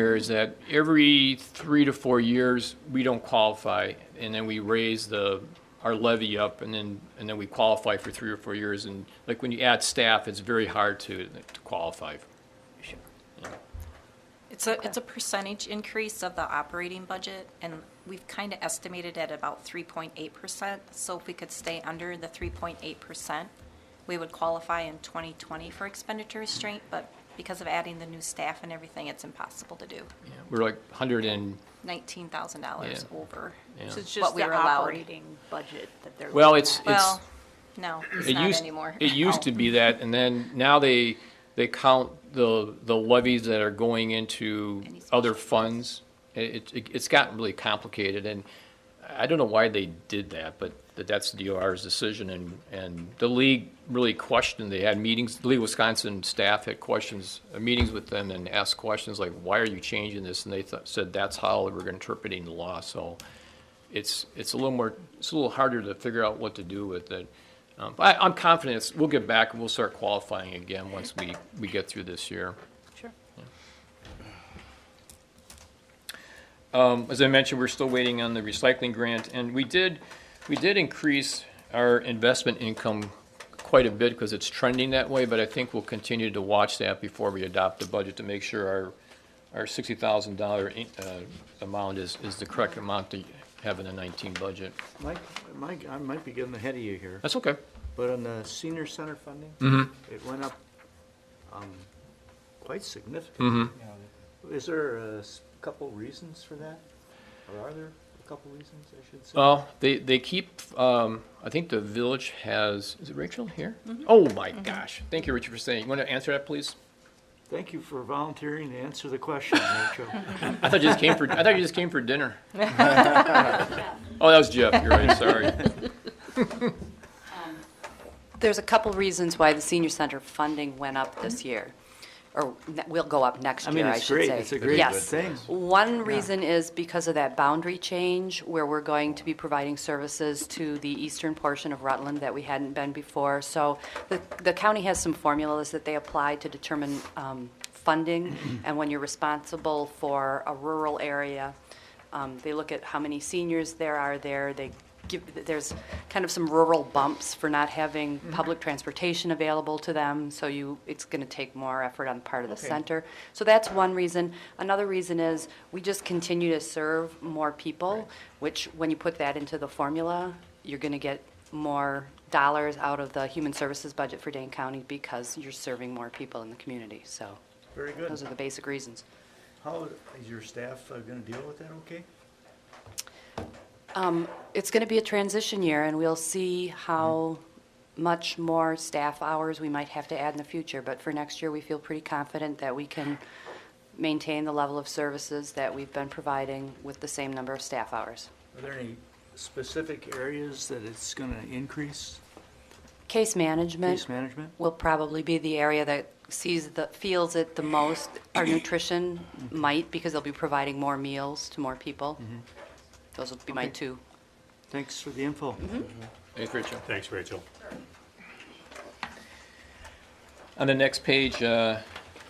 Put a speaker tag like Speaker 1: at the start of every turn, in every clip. Speaker 1: here is that every three to four years, we don't qualify, and then we raise the, our levy up, and then, and then we qualify for three or four years, and like when you add staff, it's very hard to, to qualify.
Speaker 2: It's a, it's a percentage increase of the operating budget, and we've kind of estimated at about 3.8%. So if we could stay under the 3.8%, we would qualify in 2020 for expenditure restraint, but because of adding the new staff and everything, it's impossible to do.
Speaker 1: Yeah, We're like hundred and,
Speaker 2: $19,000
Speaker 1: Yeah.
Speaker 2: over.
Speaker 1: yeah.
Speaker 3: So it's
Speaker 2: What
Speaker 3: just
Speaker 2: we
Speaker 3: the
Speaker 2: were allowed.
Speaker 3: operating budget that they're.
Speaker 1: well,
Speaker 3: looking
Speaker 1: it's,
Speaker 3: at.
Speaker 1: it's,
Speaker 2: Well, no, it's
Speaker 1: it
Speaker 2: not
Speaker 1: used,
Speaker 2: anymore. Oh,
Speaker 1: it used to be that, and then now they, they count the, the levies that are going into
Speaker 2: Any special
Speaker 1: other funds. It, it, it's gotten really complicated, and I don't know why they did that, but that that's the DOR's decision, and, and the league really questioned, they had meetings, the League of Wisconsin staff had questions, uh, meetings with them and asked questions like, why are you changing this? And they thought, said that's how we're interpreting the law, so it's, it's a little more, it's a little harder to figure out what to do with it. Um, but I, I'm confident, it's- we'll get back and we'll start qualifying again once we, we get through this year.
Speaker 3: Sure.
Speaker 1: Um, As I mentioned, we're still waiting on the recycling grant, and we did, we did increase our investment income quite a bit because it's trending that way, but I think we'll continue to watch that before we adopt the budget to make sure our, our sixty thousand dollar uh, amount is, is the correct amount to have in the nineteen budget.
Speaker 4: Mike, Mike, I might be getting ahead of you here,
Speaker 1: That's okay.
Speaker 4: but on the senior center funding,
Speaker 5: Mm-hmm.
Speaker 4: it went up um, quite significantly.
Speaker 5: Mm-hmm.
Speaker 4: Is there a s- couple reasons for that? Or are there a couple reasons, I should
Speaker 5: Uh,
Speaker 4: say?
Speaker 1: Well, they, they keep, um, I think the village has, is it Rachel here? Oh, my gosh. Thank you, Richard, for saying. You want to answer that, please?
Speaker 4: Thank you for volunteering to answer the question, Rachel.
Speaker 1: I thought you just came for. I thought you just came for dinner. oh, that was Jeff. You're right. Sorry.
Speaker 6: There's a couple reasons why the senior center funding went up
Speaker 1: Mm-hmm.
Speaker 6: this year, or ne- will go up next
Speaker 4: I
Speaker 6: year,
Speaker 4: mean,
Speaker 6: I
Speaker 4: it's
Speaker 6: should
Speaker 4: great,
Speaker 6: say.
Speaker 4: it's a great
Speaker 6: Yes.
Speaker 4: thing.
Speaker 6: One reason is because of that boundary change where we're going to be providing services to the eastern portion of Rutland that we hadn't been before. So the, the county has some formulas that they apply to determine um, funding. And when you're responsible for a rural area, um, they look at how many seniors there are there. They give, there's kind of some rural bumps for not having public transportation available to them. So you, it's going to take more effort on the part of the center. So that's one reason. Another reason is we just continue to serve more people, which when you put that into the formula, you're going to get more dollars out of the human services budget for Dane County because you're serving more people in the community. So
Speaker 4: Very good.
Speaker 6: those are the basic reasons.
Speaker 4: How is your staff going to deal with that, okay?
Speaker 6: Um, It's going to be a transition year, and we'll see how much more staff hours we might have to add in the future. But for next year, we feel pretty confident that we can maintain the level of services that we've been providing with the same number of staff hours.
Speaker 4: Are there any specific areas that it's going to increase,
Speaker 6: Case management
Speaker 4: case management?
Speaker 6: will probably be the area that sees the, feels it the most. Our nutrition
Speaker 4: Mm-hmm.
Speaker 6: might, because they'll be providing more meals to more people. Those will be my
Speaker 4: Okay.
Speaker 6: two.
Speaker 4: Thanks for the info.
Speaker 1: Thanks, Rachel.
Speaker 5: Thanks, Rachel.
Speaker 1: On the next page, uh,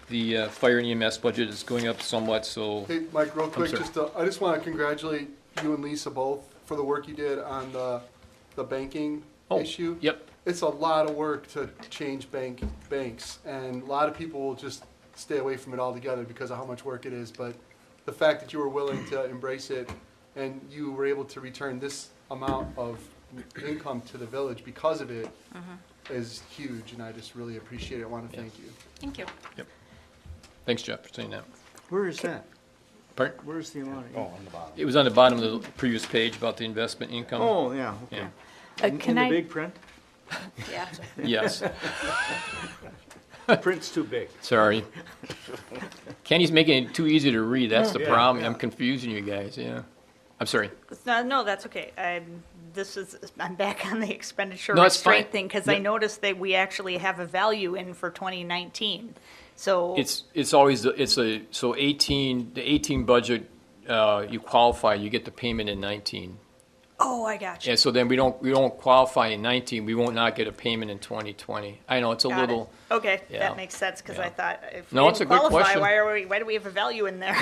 Speaker 1: the uh, fire and EMS budget is going up somewhat. So
Speaker 7: Hey, Mike, real quick,
Speaker 1: sorry.
Speaker 7: just, uh, I just want to congratulate you and Lisa both for the work you did on the, the banking
Speaker 1: Oh,
Speaker 7: issue.
Speaker 1: yep.
Speaker 7: It's a lot of work to change bank, banks, and a lot of people will just stay away from it altogether because of how much work it is, but the fact that you were willing to embrace it and you were able to return this amount of income to the village because of it is huge, and I just really appreciate it. I want to thank you.
Speaker 2: Thank you.
Speaker 1: thanks, Jeff, for saying that.
Speaker 4: Where is that?
Speaker 1: Pardon?
Speaker 4: Where's the amount? Oh, on the bottom.
Speaker 1: It was on the bottom of the previous page about the investment income.
Speaker 4: Oh, yeah, okay.
Speaker 1: Yeah.
Speaker 3: Uh,
Speaker 4: In-
Speaker 3: Can
Speaker 4: In the
Speaker 3: I,
Speaker 4: big print?
Speaker 2: Yeah.
Speaker 1: Yes.
Speaker 4: The print's too big.
Speaker 1: Sorry. Kenny's making it too easy to read. That's the
Speaker 4: Yeah,
Speaker 1: problem. I'm confusing you guys. Yeah. I'm sorry.
Speaker 3: no, no, that's okay. I'm, this is, I'm back on the expenditure
Speaker 1: No, it's fine.
Speaker 3: restraint thing because I
Speaker 1: Yeah.
Speaker 3: noticed that we actually have a value in for 2019. So
Speaker 1: It's, it's always, the- it's a, so 18, the 18 budget, uh, you qualify, you get the payment in 19.
Speaker 3: Oh, I got you.
Speaker 1: And so then we don't, we don't qualify in 19, we won't not get a payment in 2020. I know, it's a
Speaker 3: Got it.
Speaker 1: little,
Speaker 3: Okay,
Speaker 1: Yeah.
Speaker 3: that makes sense because
Speaker 1: Yeah.
Speaker 3: I thought if we
Speaker 1: No, it's
Speaker 3: didn't
Speaker 1: a good
Speaker 3: qualify,
Speaker 1: question.
Speaker 3: why are we, why do we have a value in there?